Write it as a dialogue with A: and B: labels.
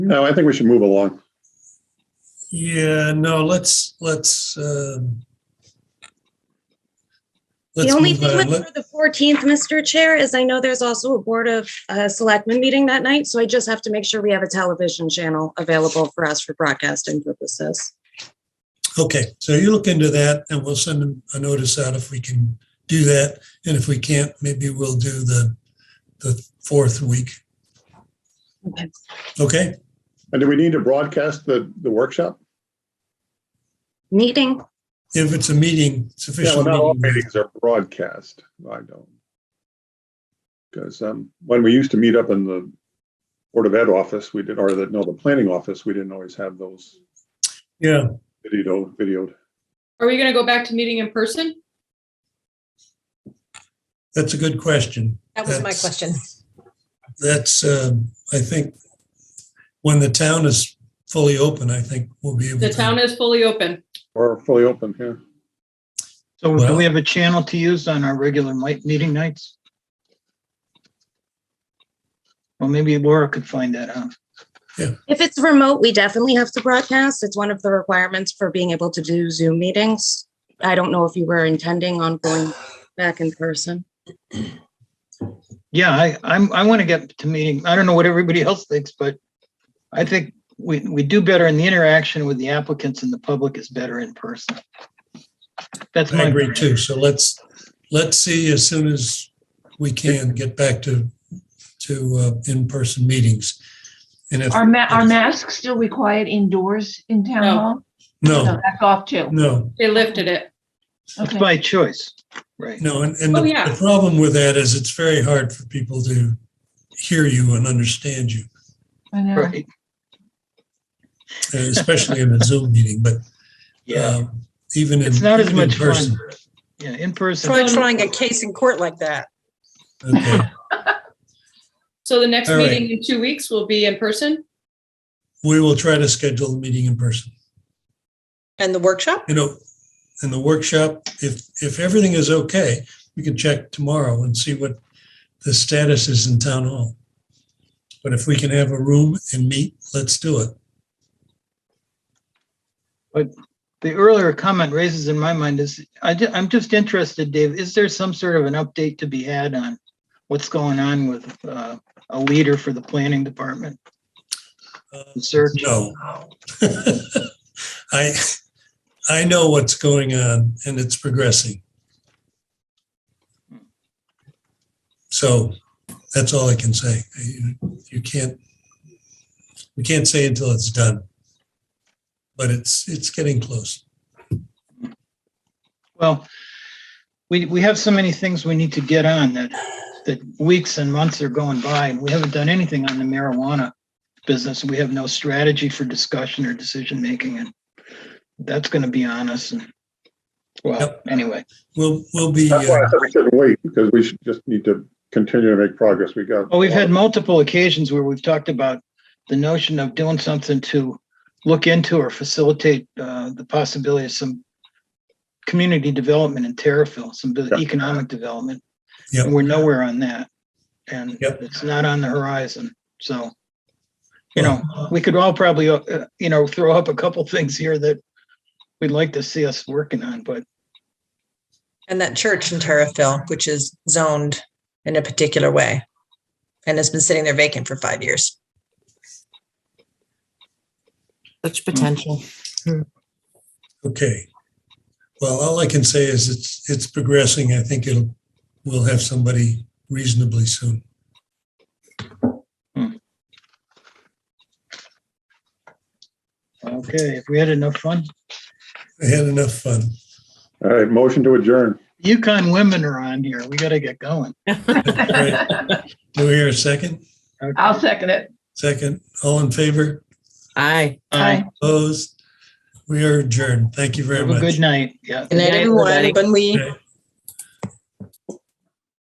A: No, I think we should move along.
B: Yeah, no, let's, let's, um.
C: The
B: let's
C: only
B: move
C: thing
B: on.
C: with
B: Let-
C: for the 14th, Mr. Chair, is I know there's also a Board of uh, Selectmen meeting that night, so I just have to make sure we have a television channel available for us for broadcasting purposes.
B: Okay, so you look into that and we'll send them a notice out if we can do that. And if we can't, maybe we'll do the, the fourth week.
C: Okay.
B: Okay,
A: And do we need to broadcast the, the workshop?
C: Meeting,
B: if it's a meeting, it's
A: Yeah, well,
B: official
A: not all
B: meeting.
A: meetings are broadcast. I don't. Because when we used to meet up in the Board of Ed office, we did, or the, no, the planning office, we didn't always have those
B: Yeah,
A: video, videoed.
D: Are we gonna go back to meeting in person?
B: that's a good question.
E: That was my
B: That's-
E: question.
B: That's, um, I think, when the town is fully open, I think we'll be able to.
D: The town is fully open.
A: Or fully open here.
F: So
B: Well-
F: do we have a channel to use on our regular night, meeting nights? Well, maybe Laura could find that out.
C: if it's remote, we definitely have to broadcast. It's one of the requirements for being able to do Zoom meetings. I don't know if you were intending on going back in person.
F: Yeah, I, I'm, I want to get to meeting. I don't know what everybody else thinks, but I think we, we do better in the interaction with the applicants and the public is better in person. That's
B: I
F: my
B: agree too. So let's, let's see as soon as we can get back to, to uh, in-person meetings. And if,
G: Are ma- are masks still required indoors in town
D: No.
G: hall?
B: no,
G: That's off too.
B: no,
D: They lifted it.
F: It's
G: Okay.
F: by choice, right?
B: no. And, and the
D: Oh, yeah.
B: the problem with that is it's very hard for people to hear you and understand you,
G: I know.
F: Right.
B: uh, especially in a Zoom meeting, but um, even in.
F: It's not as
B: even
F: much
B: in
F: fun.
B: person.
F: Yeah, in person.
E: Try trying a case in court like that.
B: Okay,
D: So the next
B: All right.
D: meeting in two weeks will be in person?
B: we will try to schedule a meeting in person.
E: And the workshop?
B: you know, in the workshop, if, if everything is okay, we can check tomorrow and see what the status is in town hall. But if we can have a room and meet, let's do it.
F: The earlier comment raises in my mind is, I, ju- I'm just interested, Dave, is there some sort of an update to be had on what's going on with, uh, a leader for the planning department
B: Uh,
F: search?
B: No. I, I know what's going on and it's progressing. So that's all I can say. You- You can't, we can't say until it's done. But it's, it's getting close.
F: Well, we, we have so many things we need to get on that, that weeks and months are going by and we haven't done anything on the marijuana business. We have no strategy for discussion or decision making and that's going to be on us. And well,
B: Yep.
F: anyway,
B: We'll, we'll be,
A: That's why I
B: uh,
A: said we shouldn't wait, because we should just need to continue to make progress. We got.
F: well, we've had multiple occasions where we've talked about the notion of doing something to look into or facilitate uh, the possibility of some community development in Terriffill, some bu-
A: Yeah.
F: economic development.
B: Yep.
F: And we're nowhere on that. And
B: Yep.
F: it's not on the horizon. So, you know, we could all probably, uh, you know, throw up a couple things here that we'd like to see us working on, but
E: And that church in Terrafil, which is zoned in a particular way and has been sitting there vacant for five years.
H: Such potential.
B: okay. Well, all I can say is it's, it's progressing. I think it'll, we'll have somebody reasonably soon.
F: okay, if we had enough fun.
B: I had enough fun.
A: All right, motion to adjourn.
F: Yukon women are on here. We got to get going.
B: All right. Do we hear a second?
G: I'll second it.
B: Second, all in favor,
H: Aye.
G: Aye.
B: opposed? We are adjourned. Thank you very
F: Have a
B: much.
F: good night. Yeah.
E: Good night,
H: night, everybody.
E: everyone. Good
B: Okay.